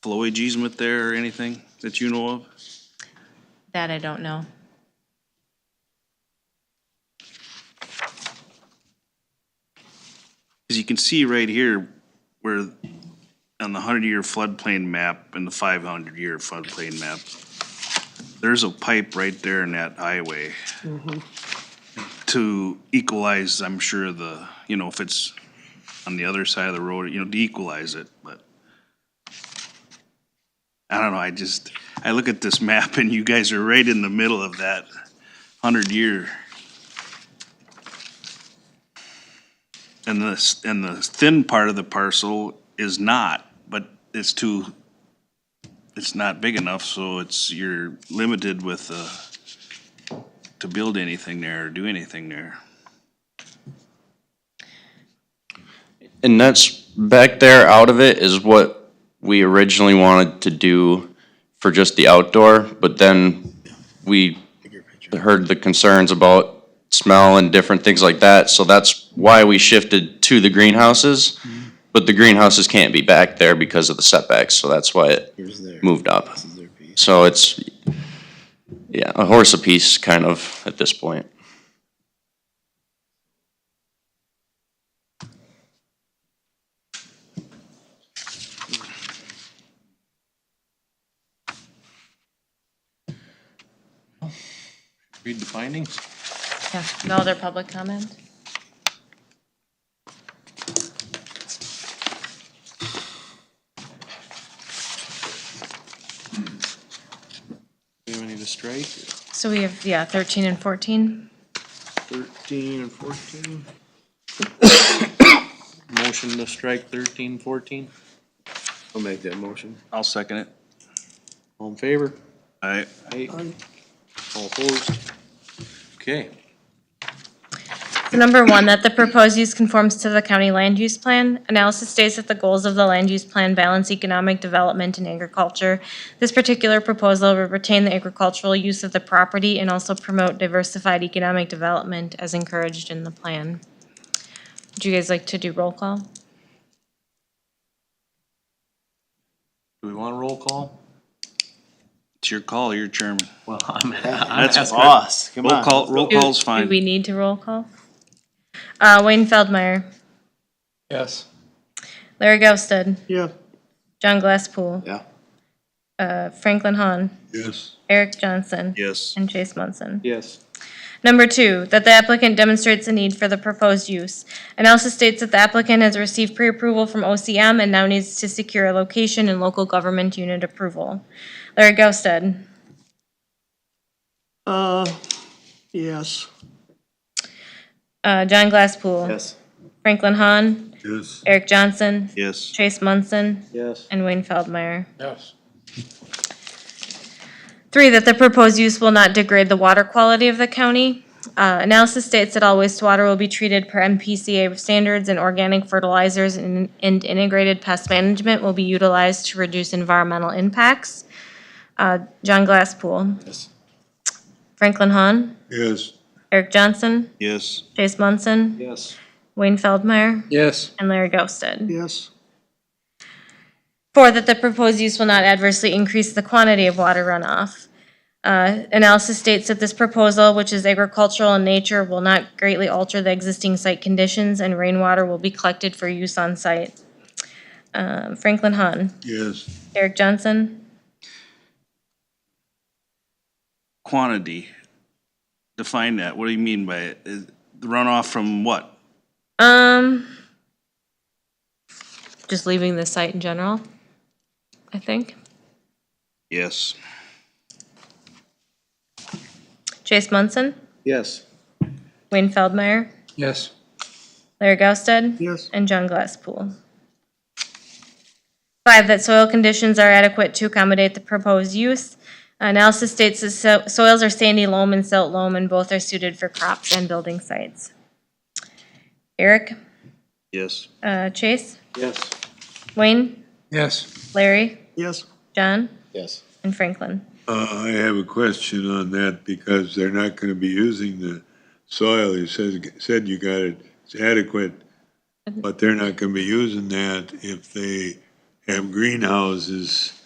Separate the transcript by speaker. Speaker 1: flowage easement there or anything that you know of?
Speaker 2: That I don't know.
Speaker 1: As you can see right here, where on the hundred-year floodplain map and the five hundred-year floodplain map, there's a pipe right there in that highway to equalize, I'm sure, the, you know, if it's on the other side of the road, you know, to equalize it, but I don't know, I just, I look at this map and you guys are right in the middle of that hundred-year. And the, and the thin part of the parcel is not, but it's too, it's not big enough, so it's, you're limited with, uh, to build anything there or do anything there.
Speaker 3: And that's back there out of it is what we originally wanted to do for just the outdoor, but then we heard the concerns about smell and different things like that, so that's why we shifted to the greenhouses. But the greenhouses can't be back there because of the setbacks, so that's why it moved up. So it's, yeah, a horse apiece kind of at this point.
Speaker 4: Read the findings.
Speaker 2: Yeah, no other public comment?
Speaker 4: Do we need to strike?
Speaker 2: So we have, yeah, thirteen and fourteen.
Speaker 4: Thirteen and fourteen. Motion to strike thirteen, fourteen.
Speaker 5: I'll make that motion.
Speaker 1: I'll second it.
Speaker 4: All in favor?
Speaker 1: I,
Speaker 4: Aye. All opposed? Okay.
Speaker 2: So number one, that the proposed use conforms to the county land use plan. Analysis states that the goals of the land use plan balance economic development and agriculture. This particular proposal will retain the agricultural use of the property and also promote diversified economic development as encouraged in the plan. Would you guys like to do roll call?
Speaker 4: Do we want a roll call?
Speaker 1: it's your call, your chairman.
Speaker 4: Well, I'm, I'm
Speaker 1: That's
Speaker 4: asking.
Speaker 5: Boss, come
Speaker 1: Roll
Speaker 5: on.
Speaker 1: call, roll
Speaker 2: Do-
Speaker 1: call's
Speaker 2: Do we
Speaker 1: fine.
Speaker 2: need to roll call? Uh, Wayne Feldmeyer,
Speaker 4: Yes.
Speaker 2: Larry Ghosted,
Speaker 5: Yeah.
Speaker 2: John Glasspool,
Speaker 5: Yeah.
Speaker 2: uh, Franklin Hahn,
Speaker 4: Yes.
Speaker 2: Eric Johnson,
Speaker 1: Yes.
Speaker 2: and Chase Munson.
Speaker 4: Yes.
Speaker 2: Number two, that the applicant demonstrates a need for the proposed use. Analysis states that the applicant has received pre-approval from OCM and now needs to secure a location and local government unit approval. Larry Ghosted,
Speaker 6: Uh, yes.
Speaker 2: uh, John Glasspool.
Speaker 5: Yes.
Speaker 2: Franklin Hahn,
Speaker 6: Yes.
Speaker 2: Eric Johnson,
Speaker 1: Yes.
Speaker 2: Chase Munson,
Speaker 4: Yes.
Speaker 2: and Wayne Feldmeyer.
Speaker 4: Yes.
Speaker 2: Three, that the proposed use will not degrade the water quality of the county. Uh, analysis states that all wastewater will be treated per MPCA standards and organic fertilizers and, and integrated pest management will be utilized to reduce environmental impacts. Uh, John Glasspool. Yes. Franklin Hahn.
Speaker 6: Yes.
Speaker 2: Eric Johnson.
Speaker 1: Yes.
Speaker 2: Chase Munson.
Speaker 4: Yes.
Speaker 2: Wayne Feldmeyer.
Speaker 4: Yes.
Speaker 2: And Larry Ghosted.
Speaker 6: Yes.
Speaker 2: Four, that the proposed use will not adversely increase the quantity of water runoff. Uh, Analysis states that this proposal, which is agricultural in nature, will not greatly alter the existing site conditions, and rainwater will be collected for use on site. Um, Franklin Hahn,
Speaker 6: Yes.
Speaker 2: Eric Johnson,
Speaker 1: Quantity. Define that. What do you mean by it? Is- Runoff from what?
Speaker 2: um, just leaving the site in general, I think.
Speaker 1: Yes.
Speaker 2: Chase Munson,
Speaker 4: Yes.
Speaker 2: Wayne Feldmeyer,
Speaker 4: Yes.
Speaker 2: Larry Gausted.
Speaker 6: Yes.
Speaker 2: and John Glasspool. Five, that soil conditions are adequate to accommodate the proposed use. Analysis states that so- soils are sandy loam and silt loam, and both are suited for crops and building sites. Eric,
Speaker 1: Yes.
Speaker 2: uh, Chase,
Speaker 4: Yes.
Speaker 2: Wayne,
Speaker 4: Yes.
Speaker 2: Larry,
Speaker 6: Yes.
Speaker 2: John,
Speaker 5: Yes.
Speaker 2: and Franklin.
Speaker 7: Uh, I have a question on that because they're not going to be using the soil. You said, said you got it, it's adequate, but they're not going to be using that if they have greenhouses